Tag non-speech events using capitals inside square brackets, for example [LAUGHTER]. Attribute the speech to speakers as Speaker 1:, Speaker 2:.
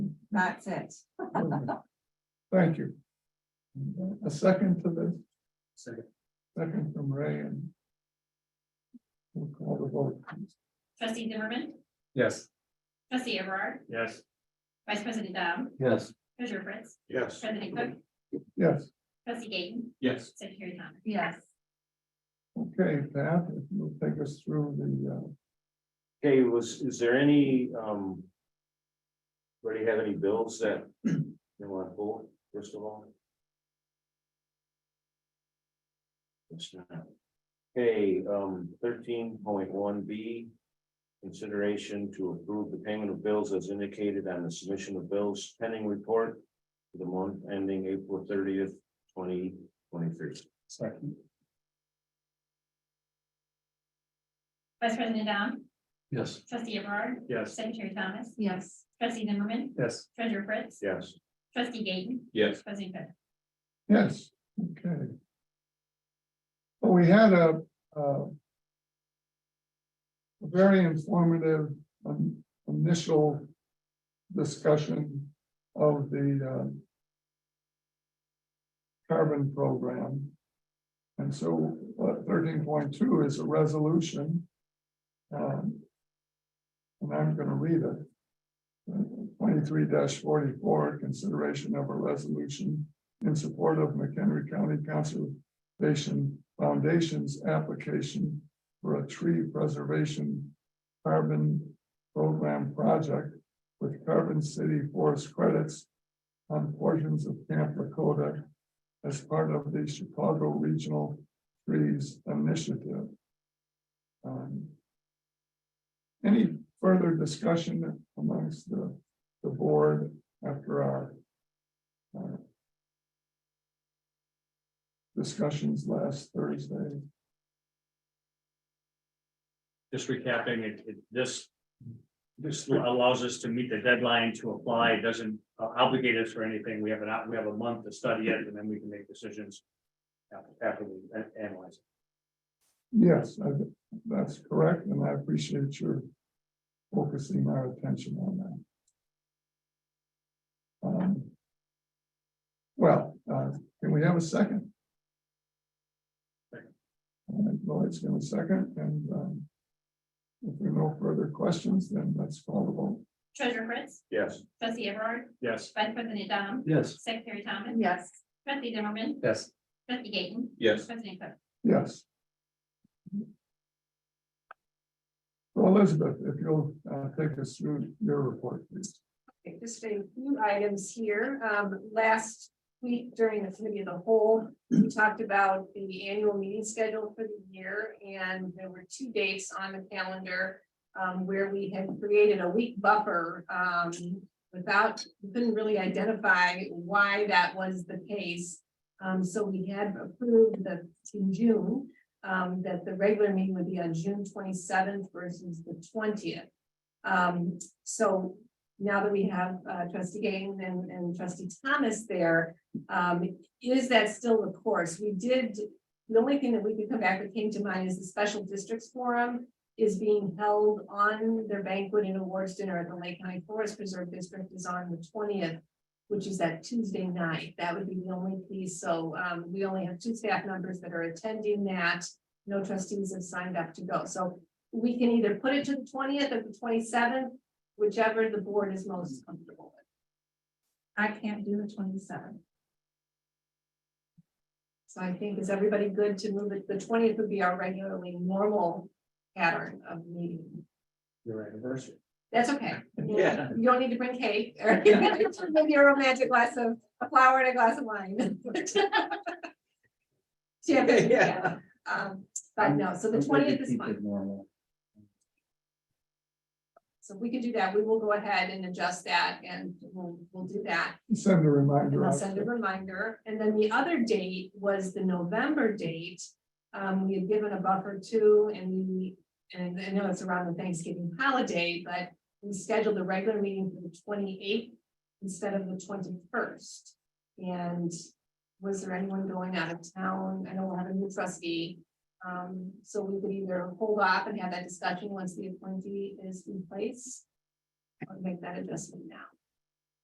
Speaker 1: That's it.
Speaker 2: Thank you. A second to this,
Speaker 3: Second.
Speaker 2: second from Ray and. We'll call the vote.
Speaker 4: Trustee Zimmerman,
Speaker 3: Yes.
Speaker 4: trustee Everard,
Speaker 3: Yes.
Speaker 4: vice president Dom,
Speaker 3: Yes.
Speaker 4: treasurer Prince,
Speaker 3: Yes.
Speaker 4: president Cook,
Speaker 2: Yes,
Speaker 4: trustee Gayton,
Speaker 3: Yes.
Speaker 4: secretary Thomas.
Speaker 1: Yes,
Speaker 2: okay, Pat, if you'll take us through the, uh,
Speaker 5: Okay, was, is there any, um. Already have any bills that [CLEARS THROAT] you want to pull, first of all? That's not- Okay, um, thirteen point one B. Consideration to approve the payment of bills as indicated on the submission of bills pending report. For the month ending April thirtieth, twenty twenty-three.
Speaker 3: Second.
Speaker 4: Vice president Dom,
Speaker 3: Yes.
Speaker 4: trustee Everard,
Speaker 3: Yes.
Speaker 4: secretary Thomas,
Speaker 1: yes,
Speaker 4: trustee Zimmerman,
Speaker 3: Yes.
Speaker 4: treasurer Prince,
Speaker 5: Yes,
Speaker 4: trustee Gayton,
Speaker 3: Yes.
Speaker 4: president Cook.
Speaker 2: yes, okay. Well, we had a, uh. a Very informative um, initial discussion of the, uh. Carbon program. And so thirteen point two is a resolution. um, And I'm gonna read it. Twenty-three forty-four, consideration of a resolution in support of McHenry County Conservation Foundation's application for a tree preservation carbon program project with Carbon City Forest credits on portions of Camp Lakota as part of the Chicago Regional Trees Initiative. Um, Any further discussion amongst the, the board after our uh, discussions last Thursday.
Speaker 6: just recapping, it, it, this. This allows us to meet the deadline to apply, It doesn't uh, obligate us for anything, we have an, out- we have a month to study it, and then we can make decisions. after- After we a- analyze. it.
Speaker 2: Yes, I thi- that's correct, and I appreciate your focusing our attention on that. Um, Well, uh, can we have a second? All right, Lloyd's gonna second, and um, if there are no further questions, then let's call the vote.
Speaker 4: Treasurer Prince,
Speaker 5: yes,
Speaker 4: trustee Everard,
Speaker 6: Yes,
Speaker 4: vice president Dom,
Speaker 3: Yes.
Speaker 4: secretary Thomas,
Speaker 1: yes,
Speaker 4: trustee Zimmerman,
Speaker 3: Yes.
Speaker 4: trustee Gayton,
Speaker 3: Yes.
Speaker 4: president Cook.
Speaker 2: Yes. Well, Elizabeth, if you'll uh, take us through your report, please.
Speaker 7: Okay, Just a few items here. Um, last week during the committee of the whole, we talked about the annual meeting schedule for the year. And there were two dates on the calendar, um, where we had created a week buffer, um, without, we couldn't really identify why that was the case. Um, so we had approved that in June, um, that the regular meeting would be on June twenty-seventh versus the twentieth. Um, so now that we have uh, trustee Gaines and, and trustee Thomas there, um, is that still the course? We did, the only thing that we could come back that came to mind is the special districts forum is being held on their banquet and awards dinner at the Lake County Forest Preserve District is on the twentieth, which is that Tuesday night. That would be the only piece. So, um, we only have two staff members that are attending that. No trustees have signed up to go. So we can either put it to the twentieth or the twenty-seventh, whichever the board is most comfortable with.
Speaker 1: I can't do the twenty-seven.
Speaker 7: So I think, is everybody good to move it? The twentieth would be our regularly normal pattern of meeting.
Speaker 3: Your anniversary.
Speaker 7: That's okay.
Speaker 3: Yeah.
Speaker 7: You don't need to bring cake or [LAUGHS] maybe a romantic glass of, a flower and a glass of wine. [LAUGHS] Champagne, yeah. Um, but no, so the twentieth is fine.
Speaker 3: Normal.
Speaker 7: So we can do that. We will go ahead and adjust that and we'll, we'll do that.
Speaker 2: Send a reminder.
Speaker 7: And I'll
Speaker 2: out.
Speaker 7: send a reminder. And then the other date was the November date. Um, we had given a buffer too, and we, and I know it's around the Thanksgiving holiday, but we scheduled a regular meeting for the twenty-eighth instead of the twenty-first. And was there anyone going out of town? I know we'll have a new trustee. Um, so we could either hold off and have that discussion once the appointee is in place. Or make that adjustment now.